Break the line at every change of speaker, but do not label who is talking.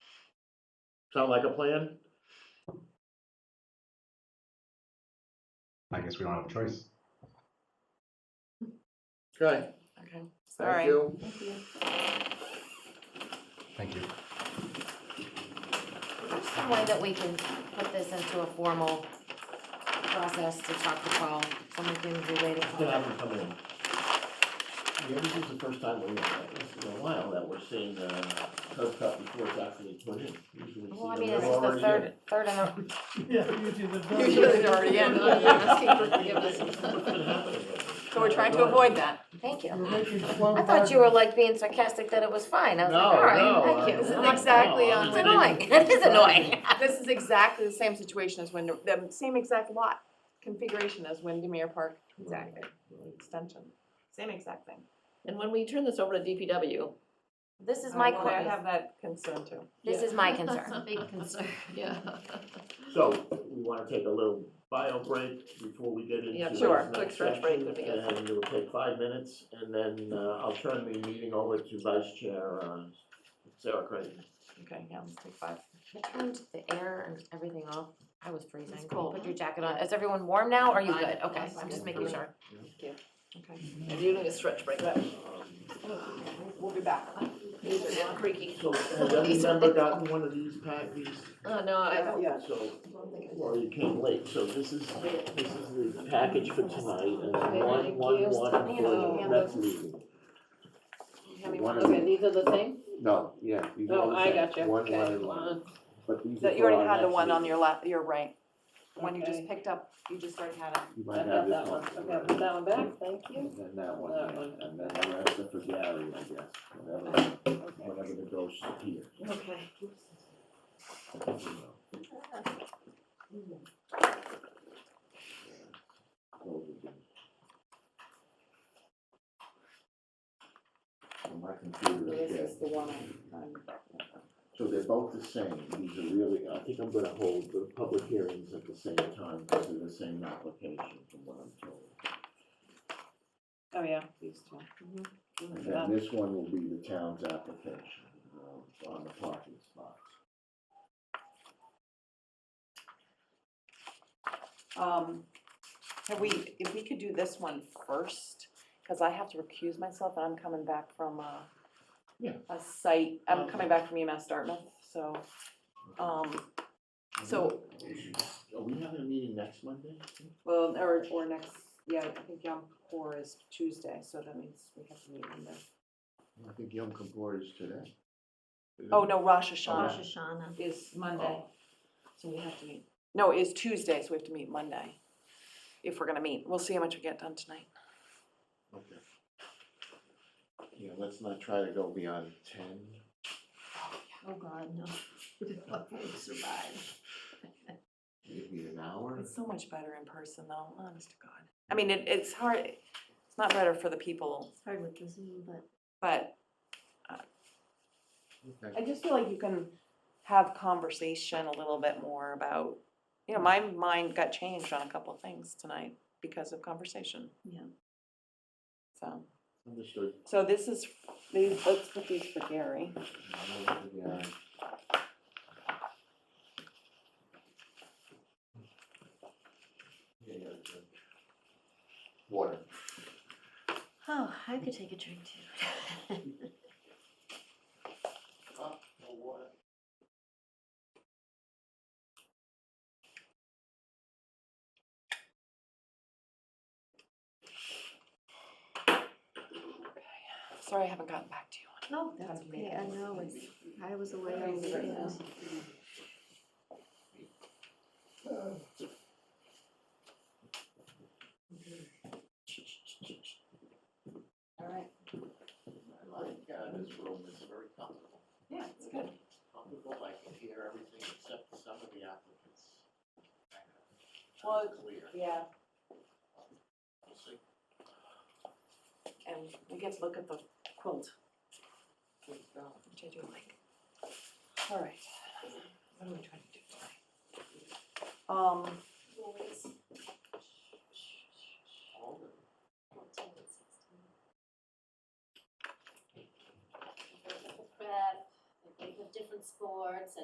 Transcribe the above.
Sound like a plan?
I guess we don't have a choice.
Okay,
Okay,
thank
sorry.
you.
Thank you.
Thank you.
There's some way that we can put this into a formal process to talk to Paul, someone can relate it.
Then I can come in. Yeah, this is the first time we, this in a while that we're seeing, uh, curb cut before it's actually put in. Usually we
Well, I
see
mean,
them
this is the
already
third, third in a,
Yeah, usually the.
in.
dog-
Usually they're already in.
It's been happening lately.
So we're trying to avoid that.
thank
We're
you.
making slow
I thought you were like being sarcastic that it was fine, I was like,
No,
all
no,
right, thank
I-
you.
This is
no,
exactly
no,
on-
It's
I
annoying,
didn't-
it is annoying.
This is exactly the same situation as when, the same exact lot configuration as Windermere Park. Exactly. Extension, same exact thing.
And when we turn this over to DPW,
This is
I
my,
wanna- I
que-
have that concern too.
this
Yeah.
is my concern.
Big concern.
yeah.
So, we wanna take a little bio break before we get into
Yeah,
this
sure.
next
Quick stretch break
section,
would be good.
And it'll take five minutes, and then, uh, I'll turn the meeting over to Vice Chair, uh, Sarah Creighton.
Okay, yeah, let's take five.
I turned the air and everything off, I was freezing, cold, put your jacket on, is everyone warm now, are you
Fine.
good? Okay,
Yes,
I'm just
I'm
making
fine.
sure.
Okay,
And you need a stretch break. These
Um,
we'll be back.
are not creaky.
So, has any member gotten one of these packages?
Oh, no, I don't.
So, well, you came late, so this is, this is the package for tonight, and then one, one, one for the next meeting. One of
Okay,
the,
these are the same?
no, yeah. these are
No,
the
I
same.
got you.
One,
Okay,
one, and
uh,
one, but these are
That you
for
already
our
had the
next
one on
meeting.
your left, your right, one you
Okay.
just picked up, you just already had it.
You might
I've
have
got
this
that one, I've got
right?
that one back, thank you.
And then that one,
That
yeah,
one.
and then the rest are for Gary, I guess, whatever, whatever the dose here.
Okay.
My computer is dead. So they're both the same, these are really, I think I'm gonna hold the public hearings at the same time, because they're the same application from what I'm told.
Oh, yeah, these two.
Mm-hmm.
And then this one will be the town's application, uh, on the parking spots.
Um, have we, if we could do this one first, cause I have to recuse myself and I'm coming back from a.
Yeah.
A site, I'm
Okay.
coming back from EMS Dartmouth, so, um, So-
Are we having a meeting next Monday?
well, or, or next, yeah, I think Yom Kippur is Tuesday, so that means we have to meet on the.
I think Yom Kippur is today.
Oh, no, Rosh
Rosh
Hashanah
Rosh Hashanah.
is Monday,
Oh.
so we have to meet, no, is Tuesday, so we have to meet Monday. If we're gonna meet, we'll see how much we get done tonight.
Okay. Yeah, let's not try to go beyond ten.
Oh, God, no. We'll Survive.
Maybe an hour?
It's so much better in person though, honest to God. I mean, it, it's hard, it's not better for the people,
It's hard with the Zoom, but
but
Okay.
I just feel like you can have conversation a little bit more about, you know, my mind got changed on a couple of things tonight because of conversation.
Yeah.
So,
Understood.
so this is, these, let's put these for Gary.
Yeah. Yeah, yeah, good. Water.
Oh, I could take a drink too.
Oh, no water.
Sorry, I haven't gotten back to you on
No, that's okay, I know, it's, I was away all weekend.
All right. I like, uh, this room is very comfortable.
it. Yeah, it's good.
Comfortable, I can hear everything except for some of the applicants.
Well,
Clear.
Yeah,
We'll see.
and we get to look at the quilt. Which I do like. All right. What are we trying to do tonight? Um,
prep, like they have different sports and